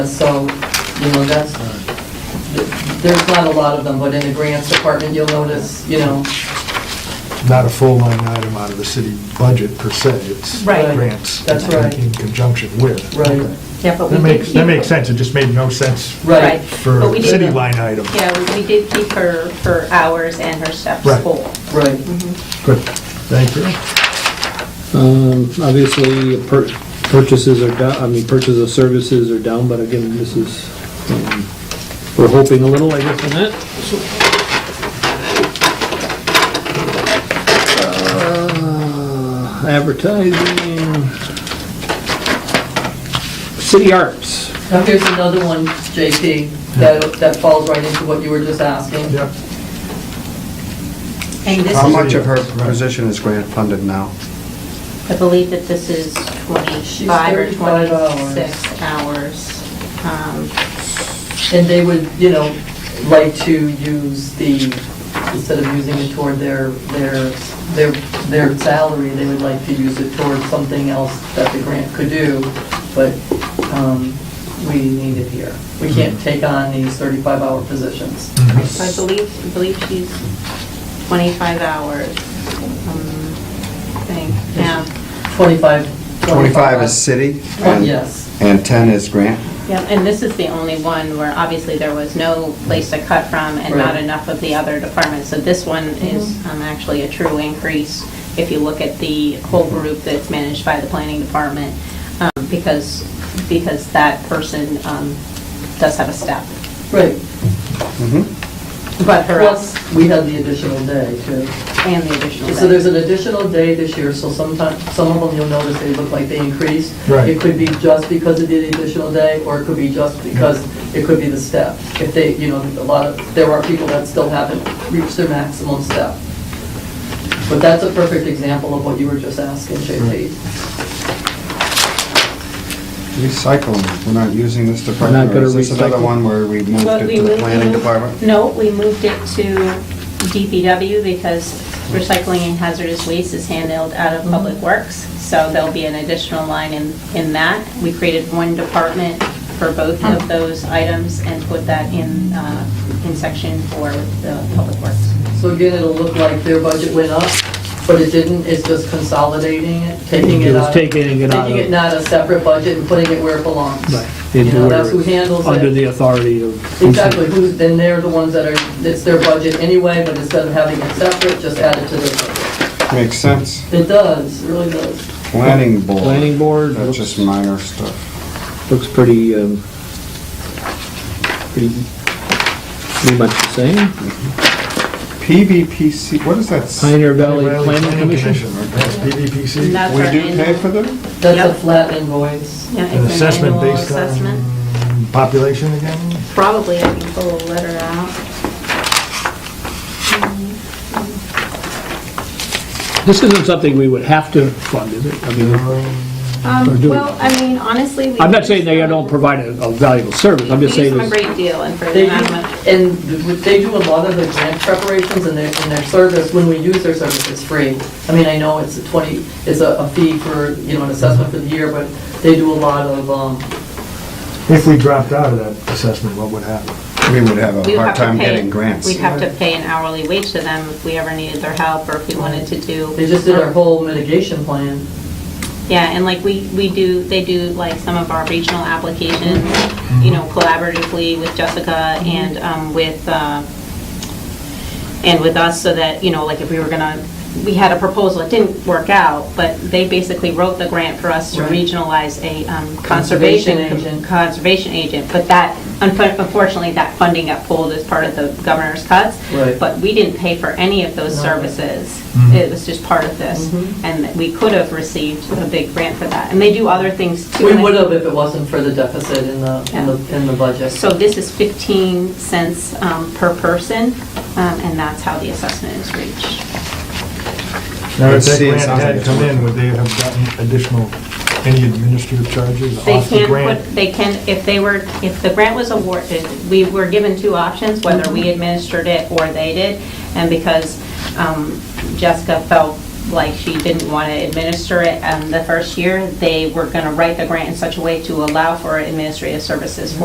So, you know, that's, there's not a lot of them, but in the grants department, you'll notice, you know, not a full line item out of the city budget per se, it's Right. grants. That's right. In conjunction with. right, Yeah, That but we did makes, keep... that makes sense, it just made no sense right. for But we a did city the- line item. Yeah, we- we did keep her, her hours and her steps Right. full. Right. Good, thank you. Um, Obviously, pur- purchases are down, I mean, purchase of services are down, but again, this is, um, we're hoping a little, I guess, on that. Uh, Advertising, city arts. Now, here's another one, JP, that, that falls right into what you were just asking. Yep. And this How is, much of her uh, position is grant funded now? I believe that this is 25 or 35 hours. 26 hours. Um, And they would, you know, like to use the, instead of using it toward their, their, their, their salary, they would like to use it toward something else that the grant could do, but, um, we need it here. We can't take on these thirty-five hour positions. Mm-hmm. So I believe, I believe she's 25 hours, um, I think, yeah. Twenty-five. 25 is city? Oh, and- Yes, And 10 is grant? Yeah, and this is the only one where obviously there was no place to cut from and not Right. enough of the other departments. So this one is um, actually a true increase if you look at the whole group that's managed by the planning department, um, because, because that person um, does have a step. right. Mm-hmm. But her, Plus, we had the additional day too. and the additional So there's day. an additional day this year, so sometimes, some of them you'll notice they look like they increased. Right. It could be just because of the additional day, or it could be just because, it could be the step. If they, you know, a lot of, there are people that still haven't reached their maximum step. But that's a perfect example of what you were just asking, JP. Recycling, we're not using this We're not department. gonna Is this another recycle. one where we moved But it we to the moved- planning department? No, we moved it to DPW because recycling and hazardous waste is handled out of Public Works, so there'll be an additional line in, in that. We created one department for both of those items and put that in, uh, in section for the Public Works. So again, it'll look like their budget went up, but it didn't, it's just consolidating it, taking it out. Just of- taking it out Taking of- it not a separate budget and putting it where it belongs. You Into know, that's where who handles it. Under the authority of. Exactly, who's, then they're the ones that are, it's their budget anyway, but instead of having it separate, just add it to their budget. Makes sense. It does, it really does. Planning board. Planning board. looks- That's just minor stuff. Looks pretty, um, pretty, pretty much the same. PVPC, what is that? s- Pioneer Valley Planning Commission. That's And PVPC. that's We our do pay annual- for them? That's a Yep. flat invoice. Yeah, An it's an assessment annual based assessment. on population again? Probably, I can pull a letter out. This isn't something we would have to fund, is it? I mean, Or Um, do well, I mean, honestly, we. I'm not saying they don't provide a a valuable service, I'm We just use saying them a this, great deal and for They do, the amount of money. and they do a lot of the grant preparations and their, and their service, when we use their service, it's free. I mean, I know it's a twenty, it's a a fee for, you know, an assessment for the year, but they do a lot of, um, If we dropped out of that assessment, what would happen? We would have a We would have hard to time pay- getting grants. We'd have to pay an hourly wage to them if we ever needed their help or if we wanted to do. they just did our whole mitigation plan. Yeah, and like we, we do, they do like some of our regional applications, you Mm-hmm. know, collaboratively with Jessica and um, with, uh, and with us so that, you know, like if we were gonna, we had a proposal, it didn't work out, but they basically wrote the grant for us to Right. regionalize a um, Conservation conservation, agent. conservation agent. But that, unfor- unfortunately, that funding got pulled as part of the governor's cuts. Right. But we didn't pay for any of those services. It was just part of this. Mm-hmm. And we could have received a big grant for that. And they do other things too. We would have if it wasn't for the deficit in the, in the, in the budget. So this is 15 cents um, per person, um, and that's how the assessment is reached. Now, if Let's that see, it grant sounds like had it's come in, working. would they have gotten additional, any administrative charges They off the can grant? put, they can, if they were, if the grant was awarded, we were given two options, whether we administered it or they did. And because um, Jessica felt like she didn't want to administer it um, the first year, they were going to write the grant in such a way to allow for administrative services for